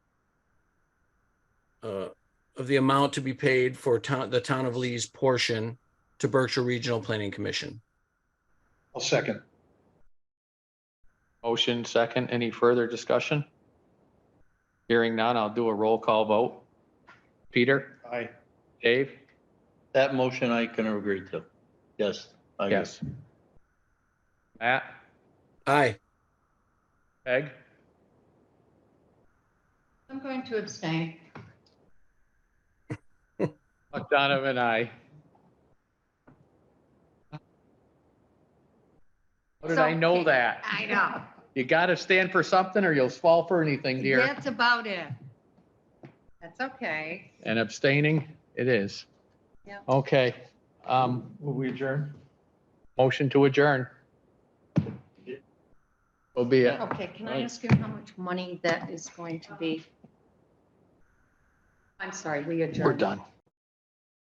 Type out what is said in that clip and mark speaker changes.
Speaker 1: uh, of the amount to be paid for town, the town of Lee's portion to Berkshire Regional Planning Commission.
Speaker 2: I'll second.
Speaker 3: Motion second. Any further discussion? Hearing none, I'll do a roll call vote. Peter?
Speaker 2: Aye.
Speaker 3: Dave?
Speaker 4: That motion I can agree to. Yes. I agree.
Speaker 3: Yes. Matt?
Speaker 1: Aye.
Speaker 3: Peg?
Speaker 5: I'm going to abstain.
Speaker 3: McDonough and I. How did I know that?
Speaker 5: I know.
Speaker 3: You gotta stand for something or you'll fall for anything, dear.
Speaker 5: That's about it. That's okay.
Speaker 3: And abstaining, it is.
Speaker 5: Yeah.
Speaker 3: Okay, um,
Speaker 2: Will we adjourn?
Speaker 3: motion to adjourn. Will be it.
Speaker 5: Okay, can I
Speaker 4: Right.
Speaker 5: ask you how much money that is going to be? I'm sorry, we adjourned.
Speaker 3: We're done.